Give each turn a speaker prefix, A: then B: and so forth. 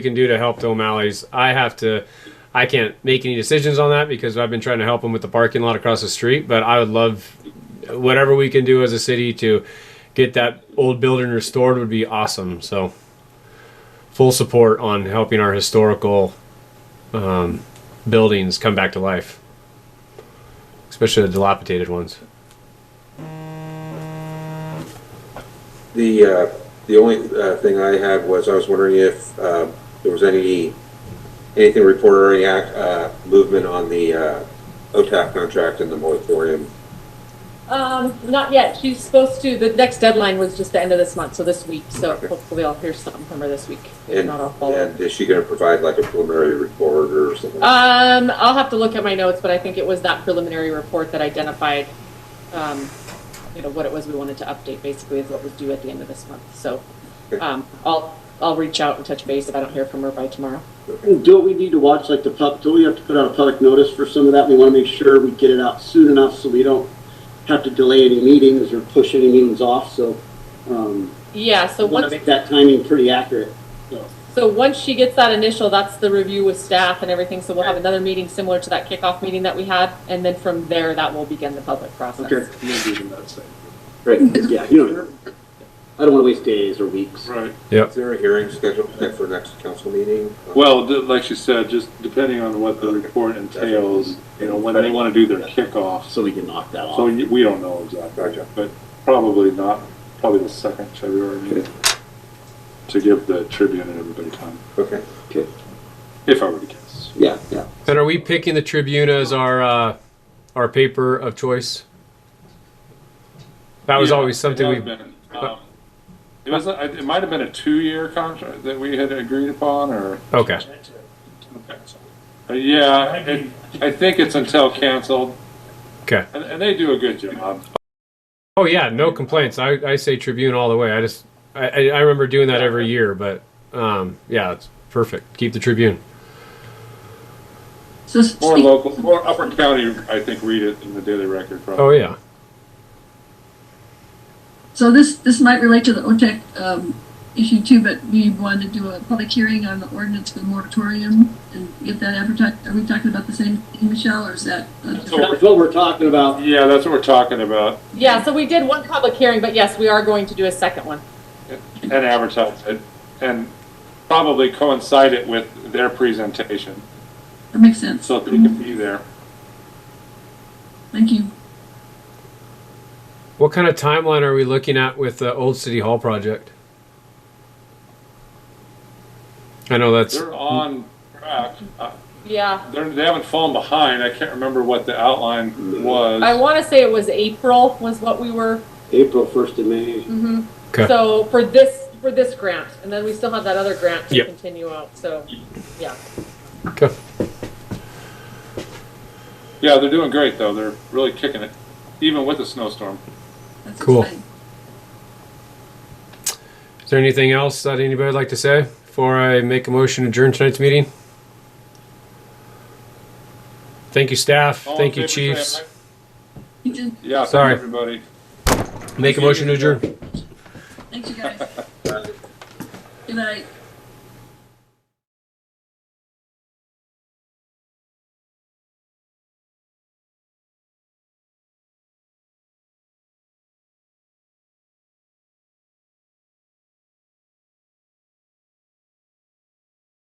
A: can do to help the O'Malley's. I have to. I can't make any decisions on that because I've been trying to help them with the parking lot across the street. But I would love whatever we can do as a city to get that old building restored would be awesome. So full support on helping our historical um, buildings come back to life, especially the dilapidated ones.
B: The, uh, the only uh, thing I had was, I was wondering if um, there was any, anything reported or any act, uh, movement on the uh, OTAP contract and the moratorium.
C: Um, not yet. She's supposed to, the next deadline was just the end of this month, so this week. So
B: Okay.
C: hopefully I'll hear something from her this week. If
B: And,
C: not, I'll follow. up.
B: and is she going to provide like a preliminary report or something?
C: Um, I'll have to look at my notes, but I think it was that preliminary report that identified, um, you know, what it was we wanted to update basically is what was due at the end of this month. So,
B: Okay.
C: um, I'll, I'll reach out and touch base if I don't hear from her by tomorrow.
D: Don't we need to watch like the pub, don't we have to put out a public notice for some of that? We want to make sure we get it out soon enough so we don't have to delay any meetings or push any meetings off, so, um,
C: Yeah, so
D: we want to
C: once,
D: make that timing pretty accurate. So,
C: so once she gets that initial, that's the review with staff and everything. So we'll have another meeting similar to that kickoff meeting that we had. And then from there, that will begin the public process.
D: okay. Right, 'cause, yeah, you know, I don't want to waste days or weeks.
E: Right.
B: Is there a hearing scheduled for next council meeting?
E: Well, d- like she said, just depending on what the report entails, you know, when they want to do their kickoffs.
D: So we can knock that
E: So
D: off.
E: y- we don't know exactly,
B: Gotcha.
E: but probably not, probably the second February meeting to give the Tribune and everybody time,
B: Okay.
D: Okay.
E: if I were to guess.
D: Yeah, yeah.
A: And are we picking the Tribune as our uh, our paper of choice? That was always something we.
E: um, It was, uh, it might have been a two-year contract that we had agreed upon, or?
A: Okay.
E: Uh, Yeah, it, I think it's until canceled,
A: Okay.
E: and, and they do a good job.
A: Oh yeah, no complaints. I, I say Tribune all the way. I just I, I I remember doing that every year, but um, yeah, it's perfect. Keep the Tribune.
F: So
E: More
F: speak,
E: local, more Upper County, I think, read it in the Daily Record. Probably.
A: Oh yeah.
F: so this, this might relate to the OTEC, um, issue too, but we wanted to do a public hearing on the ordinance for the moratorium and get that advertised. Are we talking about the same thing, Michelle, or is that? uh, a different-
D: That's what we're talking about.
E: Yeah, that's what we're talking about,
C: Yeah, so we did one public hearing, but yes, we are going to do a second one.
E: and advertise it, and probably coincide it with their presentation,
F: That makes sense.
E: so that we can be there.
F: Thank you.
A: What kind of timeline are we looking at with the old City Hall project? I know that's
E: They're on track. Uh,
C: Yeah.
E: They're, they haven't fallen behind. I can't remember what the outline was.
C: I want to say it was April was what we were. Mm-hmm.
D: April first to May.
A: Okay.
C: So for this, for this grant, and then we still have that other grant to
A: Yep.
C: continue out, so, yeah.
A: okay.
E: yeah, they're doing great though. They're really kicking it, even with the snowstorm.
F: That's
A: Cool.
F: exciting.
A: Is there anything else that anybody would like to say before I make a motion to adjourn tonight's meeting? Thank you, staff.
E: All in
A: Thank you,
E: favor, say
A: chiefs.
E: aye.
F: You did,
E: Yeah, thank
A: Sorry.
E: everybody.
A: Make a motion to adjourn.
F: thanks you guys. Good night.